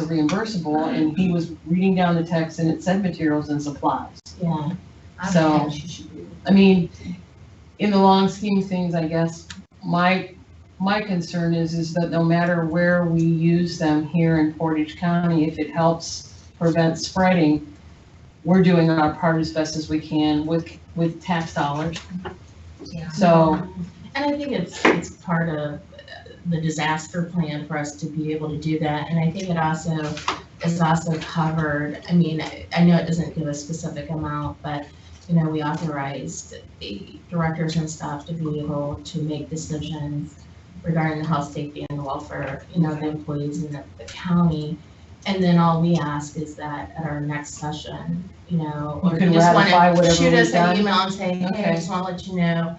are reimbursable, and he was reading down the text and it said materials and supplies. Yeah. I So- think she should be- I mean, in the long scheme of things, I guess, my, my concern is, is that no matter where we use them here in Portage County, if it helps prevent spreading, we're doing our part as best as we can with, with tax dollars. Yeah. So, And I think it's, it's part of uh, the disaster plan for us to be able to do that, and I think it also is also covered, I mean, I- I know it doesn't give a specific amount, but, you know, we authorized the directors and staff to be able to make decisions regarding the health, safety, and welfare, you know, of the employees in the the county. And then all we ask is that at our next session, you know, You or can you just ratify wanna whatever shoot we've us an done? email and say, hey, I Okay. just wanna let you know,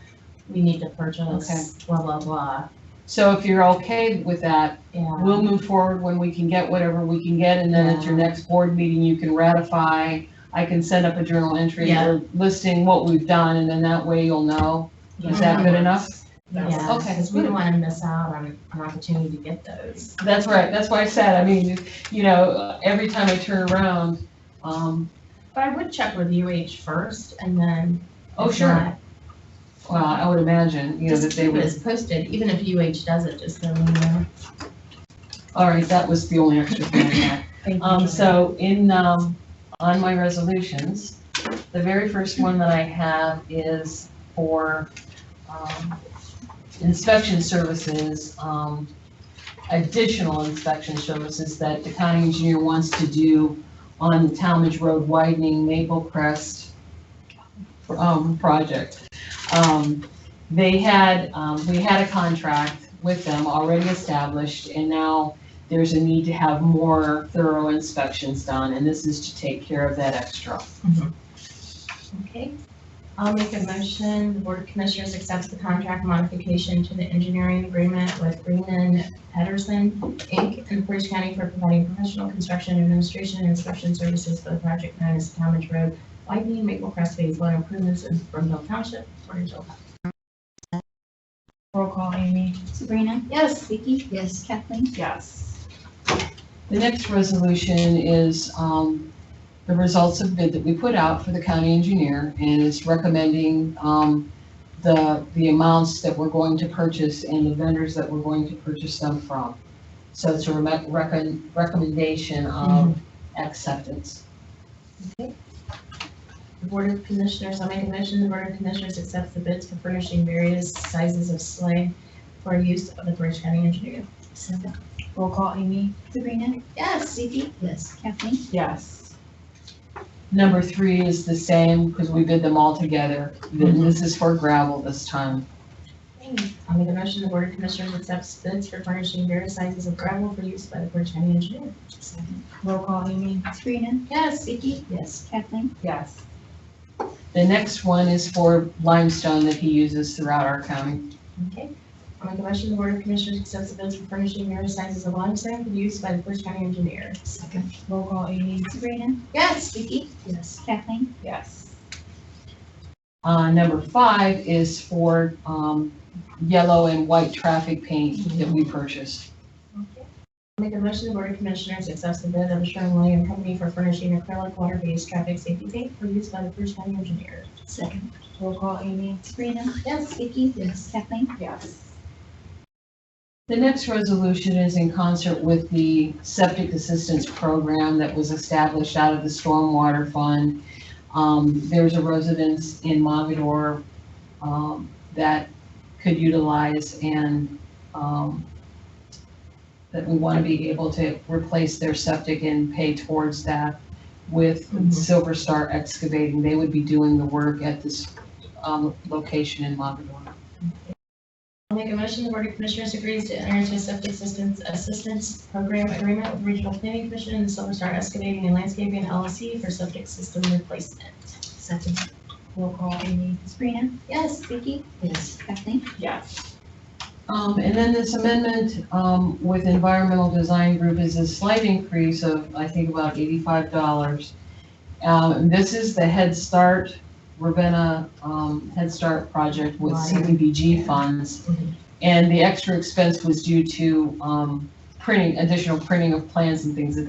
we need to Okay. purchase, blah, blah, blah, So if you're okay with that, yeah. we'll move forward when we can get whatever we can get, and then at your Yeah. next board meeting, you can ratify. I can set up a journal entry Yeah. or listing what we've done, and then that way you'll know. Is that good enough? Yeah, Okay, because we good. don't want to miss out on an opportunity to get those. That's right, that's why I said, I mean, you know, every time I turn around, um, But I would check with UH first and then. oh, if sure, not, well, I would imagine, you know, that Just they keep it would. as posted, even if UH does it, just so we know. All right, that was the only extra thing I had. Thank you, Um, Joanne. so in, um, on my resolutions, the very first one that I have is for, um, inspection services, um, additional inspection services that the county engineer wants to do on the Talmadge Road widening Maple Crest, um, project. Um, they had, um, we had a contract with them already established, and now there's a need to have more thorough inspections done, and this is to take care of that extra. Okay, I'll make a motion, the Board of Commissioners accepts the contract modification to the engineering agreement with Greenan Pedersen, Inc. and Portage County for providing professional construction administration and inspection services for the project known as Talmadge Road widening Maple Crest Phase One improvements in Broomfield Township, Portage Hill. Roll call, Amy. Sabrina? Yes. Vicky? Yes. Kathleen? Yes. The next resolution is um, the results of bid that we put out for the county engineer, and it's recommending um, the, the amounts that we're going to purchase and the vendors that we're going to purchase them from. So it's a reme- recon- recommendation of acceptance. The Board of Commissioners, I'll make a motion, the Board of Commissioners accepts the bids for furnishing various sizes of sleigh for use of the Portage County Engineer. Second. Roll call, Amy. Sabrina? Yes. Vicky? Yes. Kathleen? Yes. Number three is the same, because we bid them all together. Then This is for gravel this time. I'll make a motion, the Board of Commissioners accepts bids for furnishing various sizes of gravel for use by the Portage County Engineer. Second. Roll call, Amy. Sabrina? Yes. Vicky? Yes. Kathleen? Yes. The next one is for limestone that he uses throughout our county. Okay. I'll make a motion, the Board of Commissioners accepts the bids for furnishing various sizes of limestone for use by the Portage County Engineer. Second. Roll call, Amy. Sabrina? Yes. Vicky? Yes. Kathleen? Yes. Uh, number five is for, um, yellow and white traffic paint that we purchased. Okay. I'll Make a motion, the Board of Commissioners accepts the bid of Sherwin William Company for furnishing acrylic water-based traffic safety paint for use by the Portage County Engineer. Second. Roll call, Amy. Sabrina? Yes. Vicky? Yes. Kathleen? Yes. The next resolution is in concert with the septic assistance program that was established out of the stormwater fund. Um, there's a residence in Mogador, um, that could utilize and, um, that we want to be able to replace their septic and pay towards that with Mhm. Silver Star Excavating. They would be doing the work at this, um, location in Mogador. I'll make a motion, the Board of Commissioners agrees to enter into a septic assistance, assistance program agreement with Regional Planning Commission and Silver Star Excavating and Landscaping LLC for septic system replacement. Second. Roll call, Amy. Sabrina? Yes. Vicky? Yes. Kathleen? Yes. Um, and then this amendment, um, with environmental design group is a slight increase of, I think, about eighty-five dollars. Um, and this is the Head Start, Ravenna, um, Head Start project with Right. CDBG funds. Mhm. And the extra expense was due to, um, printing, additional printing of plans and things that they